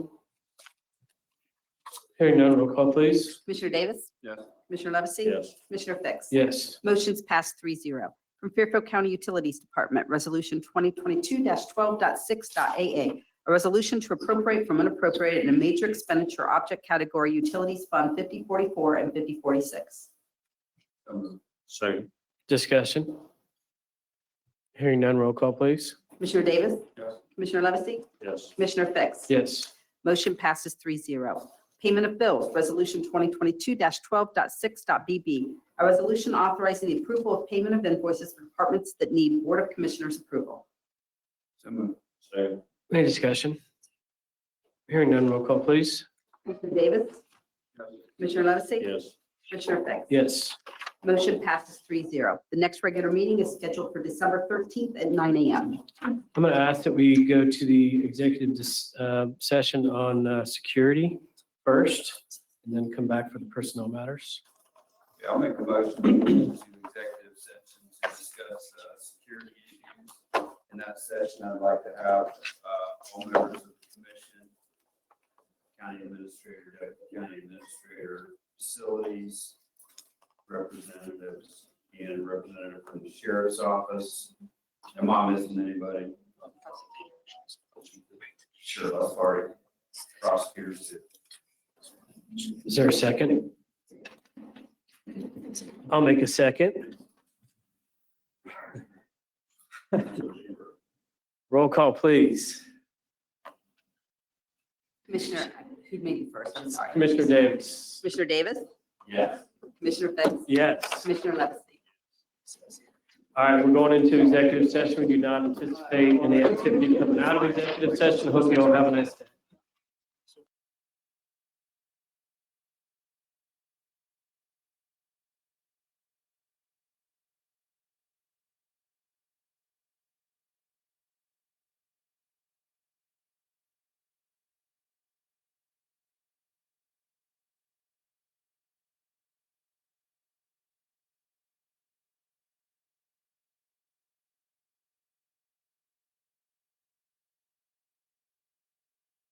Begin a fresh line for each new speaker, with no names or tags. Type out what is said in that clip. Hearing none, roll call please.
Commissioner Davis?
Yes.
Commissioner Levesey?
Yes.
Commissioner Fix?
Yes.
Motion's passed three zero. From Fairfield County Utilities Department, Resolution 2022-12.6.a.a. A resolution to appropriate from unappropriated in a major expenditure object category Utilities Fund 5044 and 5046.
So moved. Second.
Discussion. Hearing none, roll call please.
Commissioner Davis?
Yes.
Commissioner Levesey?
Yes.
Commissioner Fix?
Yes.
Motion passes three zero. Payment of bills, Resolution 2022-12.6.b.b. A resolution authorizing the approval of payment of invoices for departments that need Board of Commissioners approval.
So moved. Second.
Any discussion? Hearing none, roll call please.
Commissioner Davis? Commissioner Levesey?
Yes.
Commissioner Fix?
Yes.
Motion passes three zero. The next regular meeting is scheduled for December 13th at nine a.m.
I'm going to ask that we go to the executive dis- uh, session on uh, security first, and then come back for the personnel matters.
Yeah, I'll make a motion to executive session to discuss uh, security issues. In that session, I'd like to have uh, all members of the commission, county administrator, deputy county administrator, facilities, representatives, and representative from the sheriff's office. And mom isn't anybody. Sure, I'll sorry. Prosecutors. too.
Is there a second? I'll make a second. Roll call, please.
Commissioner, who made it first? I'm sorry.
Commissioner Davis.
Commissioner Davis?
Yes.
Commissioner Fix?
Yes.
Commissioner Levesey?
All right, we're going into executive session. We do not anticipate any activity coming out of executive session. Hope you all have a nice day.